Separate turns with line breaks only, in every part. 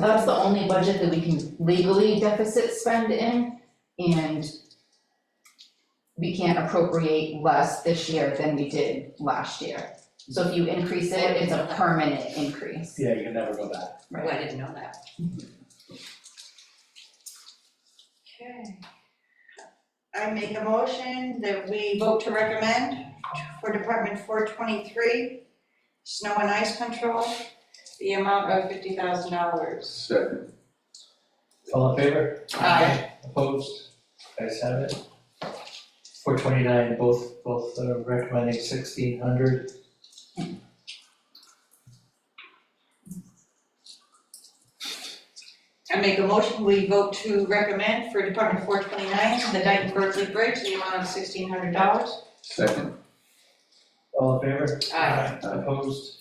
that's the only budget that we can legally deficit spend in, and we can't appropriate less this year than we did last year. So if you increase it, it's a permanent increase.
Yeah, you can never go back.
Oh, I didn't know that.
Okay. I make a motion that we vote to recommend for Department four twenty-three, snow and ice control, the amount of fifty thousand dollars.
Second.
All in favor?
Aye.
Opposed? Guys have it. Four twenty-nine, both, both uh, recommending sixteen hundred.
I make a motion, we vote to recommend for Department four twenty-nine, the Dyton Berkeley Bridge, the amount of sixteen hundred dollars.
Second.
All in favor? Opposed?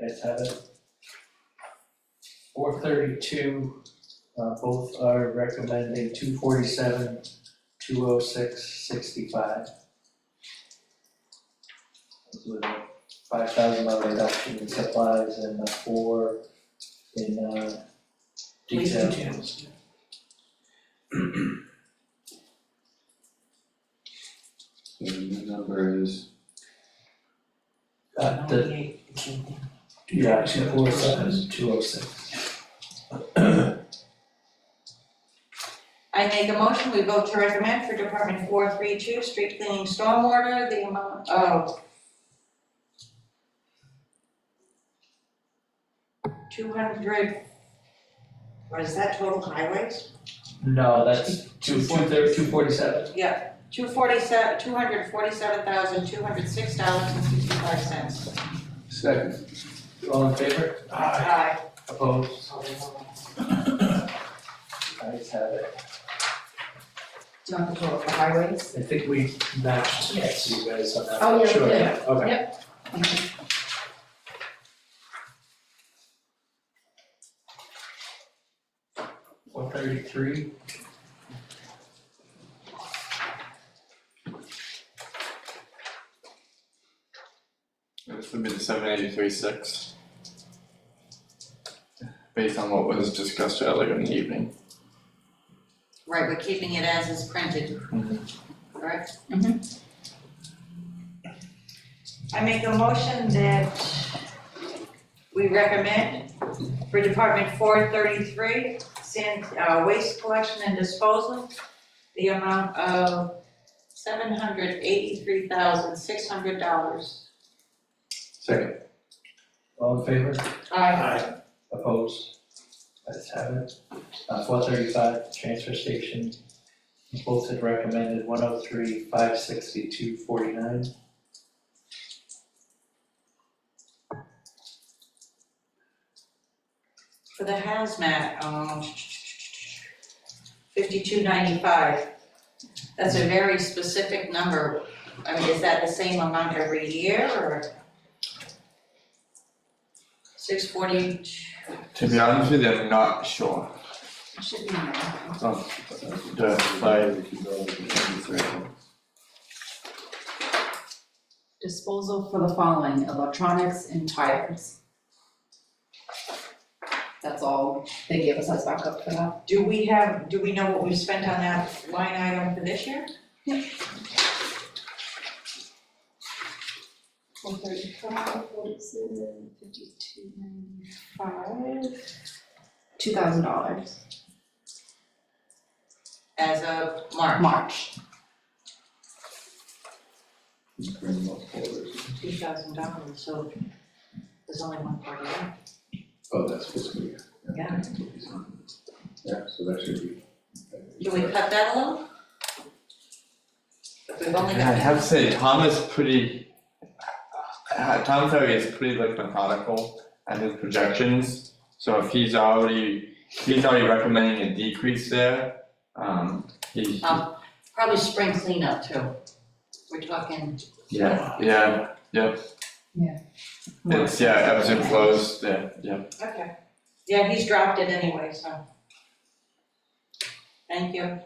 Guys have it. Four thirty-two, uh, both are recommending two forty-seven, two oh six, sixty-five. With a five thousand dollar reduction in supplies and a four in, uh,
Police
detail.
details.
The new number is,
Uh, the, yeah, two four seven, two oh six.
I make a motion, we vote to recommend for Department four three two, street cleaning stormwater, the amount of two hundred, what is that total highways?
No, that's two, two thirty, two forty-seven.
Yeah, two forty-seven, two hundred forty-seven thousand, two hundred six dollars and sixty-five cents.
second.
All in favor?
Aye.
Opposed? Ayes have it.
Do you want the total for highways?
I think we matched
Yes.
you guys on that.
Oh, yeah, we
Sure,
did.
yeah, okay. One thirty-three.
This would be the seven eighty-three six. Based on what was discussed earlier in the evening.
Right, we're keeping it as is printed. Correct? Mm-hmm. I make a motion that we recommend for Department four thirty-three, sand, uh, waste collection and disposal, the amount of seven hundred eighty-three thousand, six hundred dollars.
Second.
All in favor?
Aye.
Opposed? Ayes have it. Uh, four thirty-five, transfer station. Both had recommended one oh three, five sixty-two, forty-nine.
For the hazmat, um, fifty-two ninety-five. That's a very specific number. I mean, is that the same amount every year or? Six forty,
To be honest with you, I'm not sure.
should be, in there.
Oh, The five,
Disposal for the following, electronics and tires. That's all they gave us as backup for that.
do we have, do we know what we spent on that line item for this year?
One thirty-five, forty-seven, fifty-two, ninety-five.
Two thousand dollars,
As of March,
March.
Bring them up forward.
two thousand dollars, so there's only one forty left.
Oh, that's fiscal year.
Yeah.
Yeah, so that should be.
Can we cut that a little? We've only
I
got.
have to say, Tom is pretty. uh, Tom Ferry is pretty like methodical at his projections, so if he's already, if he's already recommending a decrease there, um, he,
Um, probably spring cleanup too. We're talking,
yeah, yeah, yep.
Yeah.
It's, yeah, ebbs and flows, yeah, yeah.
okay. Yeah, he's dropped it anyway, so. Thank you.